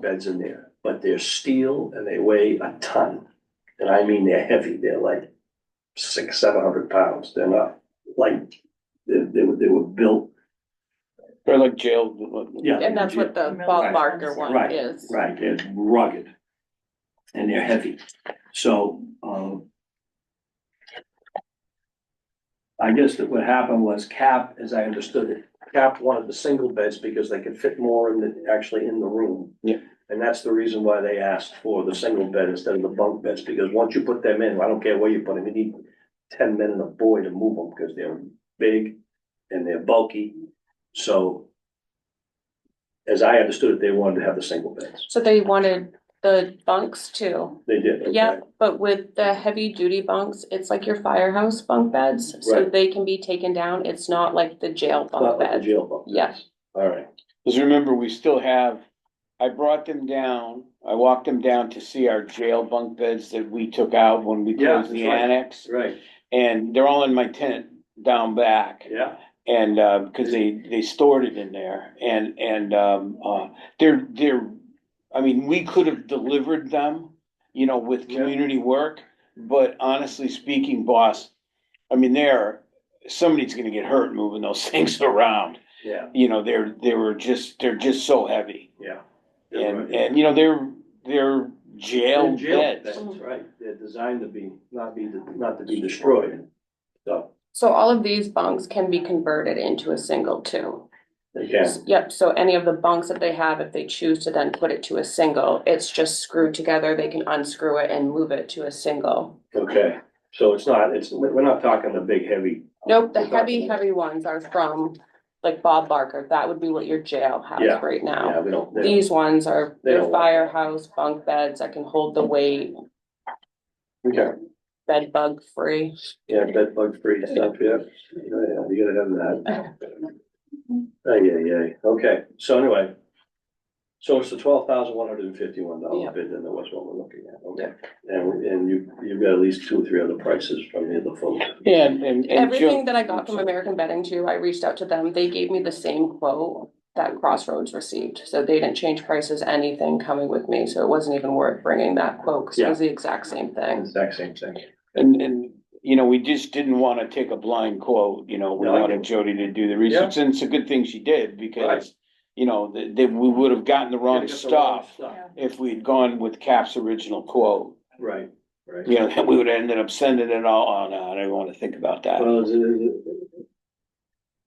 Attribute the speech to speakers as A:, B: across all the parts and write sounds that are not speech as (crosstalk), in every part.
A: beds in there, but they're steel and they weigh a ton. And I mean, they're heavy, they're like six, seven hundred pounds, they're not light, they, they were, they were built,
B: They're like jail.
A: yeah.
C: And that's what the
A: Right.
C: Bob Barker one
A: Right.
C: is.
A: Right, they're rugged and they're heavy, so, um. I guess that what happened was Cap, as I understood it, Cap wanted the single beds because they could fit more in the, actually in the room.
B: Yeah.
A: And that's the reason why they asked for the single bed instead of the bunk beds, because once you put them in, I don't care where you put them, you need ten men and a boy to move them, because they're big and they're bulky, so. As I understood it, they wanted to have the single beds.
C: So they wanted the bunks too.
A: They did, okay.
C: Yep, but with the heavy duty bunks, it's like your firehouse bunk beds, so
A: Right.
C: they can be taken down. It's not like the jail
A: Not
C: bunk
A: like the
C: bed.
A: jail bunk.
C: Yes.
A: All right,
B: Cause remember, we still have, I brought them down, I walked them down to see our jail bunk beds that we took out when we
A: Yeah,
B: closed the
A: that's right.
B: annex.
A: right,
B: And they're all in my tent down back.
A: yeah,
B: And, uh, cause they, they stored it in there and, and, um, uh, they're, they're, I mean, we could have delivered them, you know, with
A: Yeah.
B: community work, but honestly speaking, boss, I mean, they're, somebody's gonna get hurt moving those (laughs) things around.
A: yeah,
B: You know, they're, they were just, they're just so heavy.
A: yeah. You're
B: And,
A: right.
B: and, you know, they're, they're jail
A: They're jail
B: beds.
C: Mm.
A: beds, Right, they're designed to be, not be, not to be destroyed, so,
C: So all of these bunks can be converted into a single too.
A: they can,
C: Yep, so any of the bunks that they have, if they choose to then put it to a single, it's just screwed together. They can unscrew it and move it to a single.
A: okay. So it's not, it's, we're not talking the big heavy,
C: Nope, the
A: We're talking-
C: heavy, heavy ones are from like Bob Barker. That would be what your jail
A: Yeah,
C: has right now.
A: yeah, we don't, they don't-
C: These ones are
A: They
C: your
A: don't want that.
C: firehouse bunk beds that can hold the weight,
A: okay,
C: bed bug free.
A: yeah, bed bug free stuff, yeah, yeah, yeah, you gotta have that. Oh, yeah, yeah, okay, so anyway. So it's the twelve thousand one hundred and fifty-one dollar
C: Yeah.
A: bid, and that was what we're looking at, okay, and, and you, you've got at least two or three other prices from the other folks.
B: Yeah, and, and. and Jill-
C: Everything that I got from American Bedding too, I reached out to them. They gave me the same quote that Crossroads received. So they didn't change prices, anything coming with me. So it wasn't even worth bringing that quote because it was the exact same thing.
A: Exact same thing.
B: And, and, you know, we just didn't wanna take a blind quote, you know, we
A: No, I
B: wanted
A: get-
B: Jody to do the research, and it's a good thing she did, because. You know, that, that we would have gotten the wrong
A: Gotta get the wrong
B: stuff if we'd gone with Cap's original quote.
A: Right, right.
B: You know, (laughs) that we would have ended up sending it all on, I don't wanna think about that.
A: Well, it's, uh,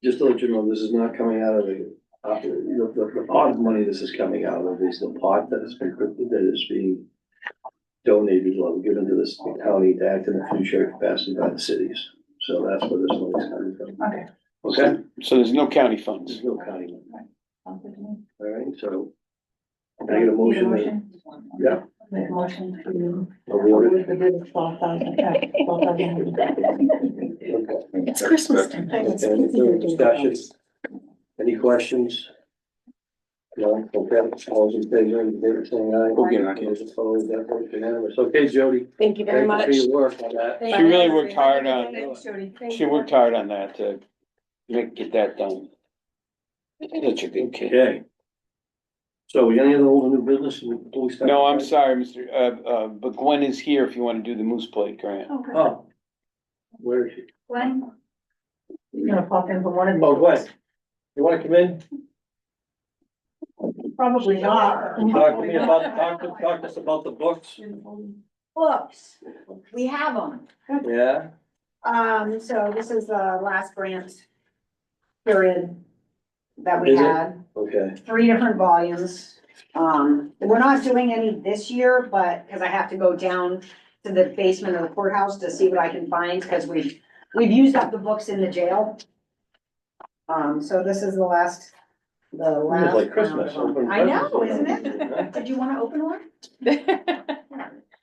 A: Just to let you know, this is not coming out of the, uh, the, the, the pot money this is coming out of is the pot that has been, that is being donated or given to this county to act in a fiduciary capacity by the cities. So that's where this money's coming from.
D: Okay.
A: Okay,
B: So there's no county funds.
A: there's no county money,
D: Sounds good to me.
A: all right, so. Can I get a motion? that- Yeah.
D: Make a motion to.
A: Award it.
D: With the bid of twelve thousand, yeah, twelve thousand.
A: Okay.
E: It's Christmas time.
A: Okay, any discussions? Any questions? No, okay, all those in favor, in favor, saying aye.
B: We'll get it.
A: Those opposed, that vote's unanimous. Okay, Jody.
C: Thank you very
A: Thank
C: much.
A: you for your work on that.
B: She really worked hard on,
D: Thanks, Jody.
B: she worked hard on that to make, get that done. Such a good kid.
A: Okay. So any other old and new business before we start?
B: No, I'm sorry, Mr., uh, uh, but Gwen is here if you wanna do the Moose Plate grant.
D: Okay.
A: Oh. Where is she?
D: Gwen? You gonna pop in for one of these?
A: Oh, Gwen, you wanna come in?
D: Probably
A: Talk
D: not.
A: to me about, talk to, talk to us about the books.
F: Books, we have them.
A: Yeah,
F: Um, so this is the last grant period that we
A: Is it?
F: had,
A: okay,
F: three different volumes. Um, we're not doing any this year, but, because I have to go down to the basement of the courthouse to see what I can find, because we've, we've used up the books in the jail. Um, so this is the last, the
A: it's
F: last.
A: like Christmas.
F: round of them.
A: open
F: I know,
A: presents.
F: isn't it? Did you want to open one?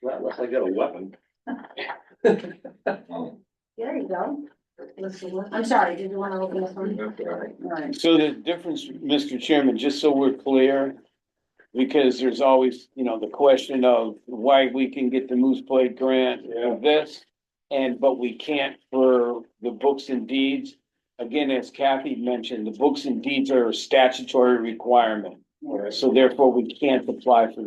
A: Well, unless I got a weapon. (laughs)
F: There you go. I'm sorry, did you want to open this one? Alright.
B: So the difference, Mr. Chairman, just so we're clear, because there's always, you know, the question of why we can get the Moose Plate grant
A: Yeah.
B: for this, and, but we can't for the books and deeds. Again, as Kathy mentioned, the books and deeds are a statutory requirement. So therefore, we can't apply for the